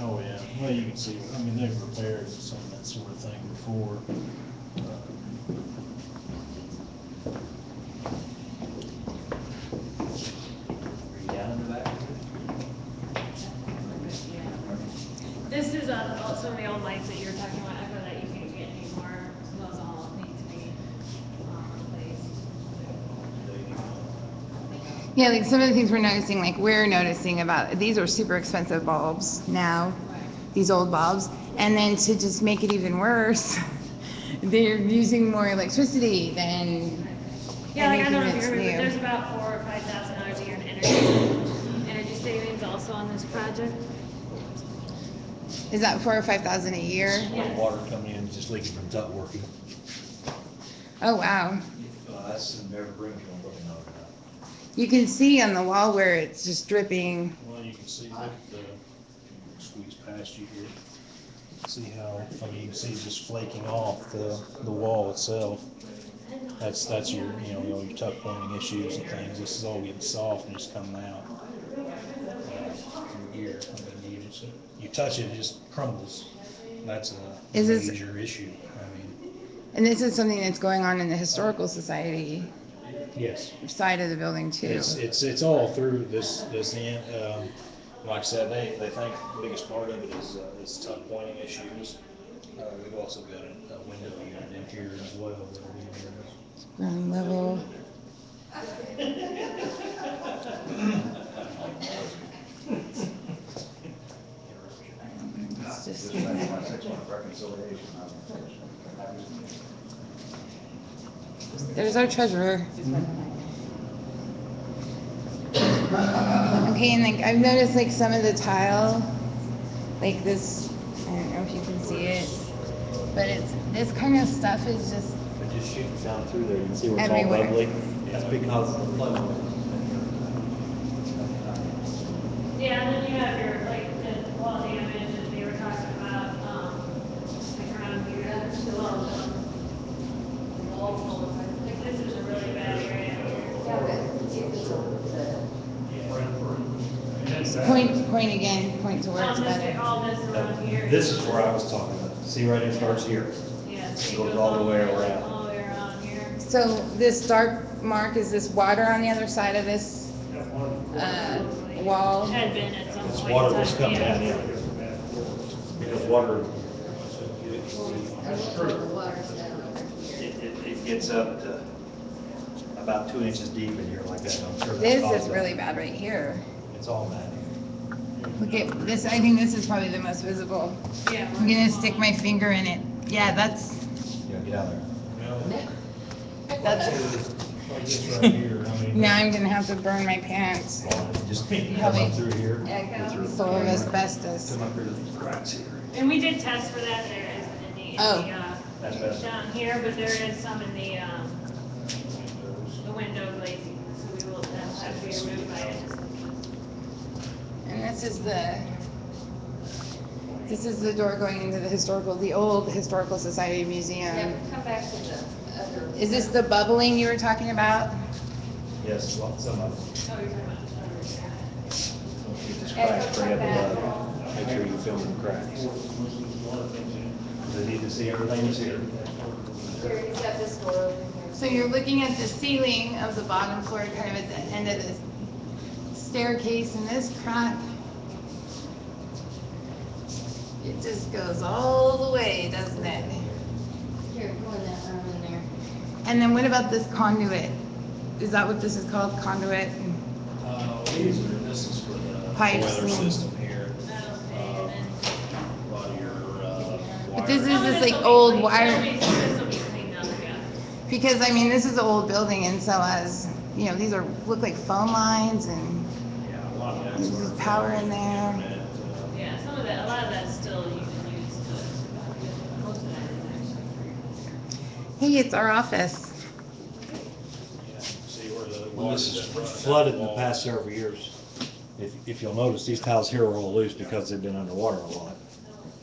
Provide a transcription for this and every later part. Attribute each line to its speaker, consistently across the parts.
Speaker 1: Oh, Well, you can see, I mean, they've repaired some of that sort of thing before. Uh,
Speaker 2: Are you down in the back?
Speaker 3: This is uh, all- some of the old lights that you were talking about, Echo, that you can't get anymore, so those all need to be um, replaced.
Speaker 1: they, uh,
Speaker 4: Yeah, like some of the things we're noticing, like we're noticing about, these are super expensive bulbs now, these old bulbs. And then to just make it even worse, they're using more electricity than,
Speaker 3: Yeah, like I don't know if
Speaker 4: Anything
Speaker 3: you
Speaker 4: that's
Speaker 3: remember, but
Speaker 4: new.
Speaker 3: there's about four or five thousand dollars a year in energy, energy savings also on this project.
Speaker 4: is that four or five thousand a year?
Speaker 3: Yes.
Speaker 5: Water coming in, just leaks from duct working.
Speaker 4: Oh, wow.
Speaker 2: Well, that's in Bear Brook, you don't look at it.
Speaker 4: You can see on the wall where it's just dripping.
Speaker 1: Well, you can see that, uh, squeeze past you here. See how, I mean, you can see just flaking off the, the wall itself. That's, that's your, you know, all your tuck pointing issues and things. This is all getting soft and just coming out. Through here, I mean, you just, you touch it, it just crumbles. That's a
Speaker 4: Is this-
Speaker 1: major issue, I mean.
Speaker 4: And this is something that's going on in the historical society
Speaker 1: Yes.
Speaker 4: side of the building too.
Speaker 1: It's, it's, it's all through this, this end, um, like I said, they, they think the biggest part of it is, uh, is tuck pointing issues. Uh, we've also got a, a window unit in here as well that we, uh,
Speaker 4: Ground level. It's just-
Speaker 2: This is my six month reconciliation. I'm-
Speaker 4: There's our treasurer. Okay, and like, I've noticed like some of the tile, like this, I don't know if you can see it, but it's, this kind of stuff is just,
Speaker 5: But just shooting down through there, you can see where it's all
Speaker 4: Everywhere.
Speaker 5: bubbly. That's
Speaker 1: Uh,
Speaker 5: because of the flood.
Speaker 3: Yeah, and then you have your, like, the wall damage that they were talking about, um, like around here, that's the wall, the wall full of- like, this is a really bad area.
Speaker 4: point, point again, point to where
Speaker 3: Um,
Speaker 4: it's
Speaker 3: this,
Speaker 4: better.
Speaker 3: all this around here.
Speaker 5: Uh, This is where I was talking about. See right here, starts here.
Speaker 3: Yeah, so it
Speaker 5: goes all the way around.
Speaker 3: All the way around here.
Speaker 4: So this dark mark, is this water on the other side of this, uh, wall?
Speaker 3: Had been at some point.
Speaker 5: This water was
Speaker 3: in time,
Speaker 5: coming
Speaker 3: yeah.
Speaker 5: down here. Because water. That's true. It, it, it gets up to about two inches deep in here like that. I'm sure that's
Speaker 4: This is
Speaker 5: caused it.
Speaker 4: really bad right here.
Speaker 5: It's all that.
Speaker 4: Look at this, I think this is probably the most visible.
Speaker 3: Yeah.
Speaker 4: I'm gonna stick my finger in it. Yeah, that's,
Speaker 5: Yeah, get out of there.
Speaker 4: that's,
Speaker 1: like this right here, I mean.
Speaker 4: now I'm gonna have to burn my pants.
Speaker 5: Just come up through here.
Speaker 4: Full of asbestos.
Speaker 5: Come up here to these cracks here.
Speaker 3: And we did test for that, there is in the, in
Speaker 4: Oh.
Speaker 3: the,
Speaker 5: That's
Speaker 3: uh,
Speaker 5: best.
Speaker 3: down here, but there is some in the, um, the window glazing, so we will, that's, have to be removed by it.
Speaker 4: And this is the, this is the door going into the historical, the old Historical Society
Speaker 6: Yeah,
Speaker 4: Museum.
Speaker 6: but come back to the other.
Speaker 4: Is this the bubbling you were talking about?
Speaker 5: Yes, lots of them.
Speaker 3: Oh, you're talking about.
Speaker 5: Get this
Speaker 6: Echo,
Speaker 5: crack right
Speaker 6: come
Speaker 5: up
Speaker 6: back.
Speaker 5: above. Make sure you fill in the cracks. They need to see everything that's here.
Speaker 6: Here, he's got this door over here.
Speaker 4: So you're looking at the ceiling of the bottom floor, kind of at the end of this staircase, and this crack, it just goes all the way, doesn't it?
Speaker 6: Here, go in that room in there.
Speaker 4: And then what about this conduit? Is that what this is called, conduit?
Speaker 1: Uh, these are, this is for the
Speaker 4: Pipes.
Speaker 1: boiler system here.
Speaker 3: Okay, and then.
Speaker 1: A lot of your, uh.
Speaker 4: But this
Speaker 1: wires.
Speaker 4: is this,
Speaker 3: will
Speaker 4: like,
Speaker 3: be
Speaker 4: old
Speaker 3: clean.
Speaker 4: wire- Oh,
Speaker 3: This'll be- this'll be cleaned up, yeah.
Speaker 4: Because, I mean, this is an old building, and so as, you know, these are, look like phone lines, and
Speaker 1: Yeah, a lot of that's.
Speaker 4: there's
Speaker 1: where-
Speaker 4: just power in there.
Speaker 1: Internet, uh,
Speaker 3: Yeah, some of that, a lot of that's still you can use to, most of that is
Speaker 4: Hey, it's our office.
Speaker 1: yeah, See where the.
Speaker 5: Well, this
Speaker 1: water's been
Speaker 5: is
Speaker 1: running
Speaker 5: flooded in
Speaker 1: down
Speaker 5: the
Speaker 1: wall.
Speaker 5: past several years. If, if you'll notice, these tiles here are all loose because they've been underwater a lot.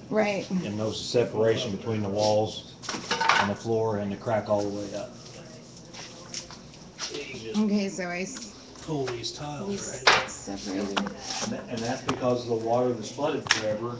Speaker 4: Right.
Speaker 5: And notice the separation between the walls and the floor and the crack all the way up.
Speaker 1: You just
Speaker 4: Okay, so I s-
Speaker 1: Pull these tiles
Speaker 4: we
Speaker 1: right
Speaker 4: s- separated.
Speaker 5: And that- And that's because of the water that's flooded forever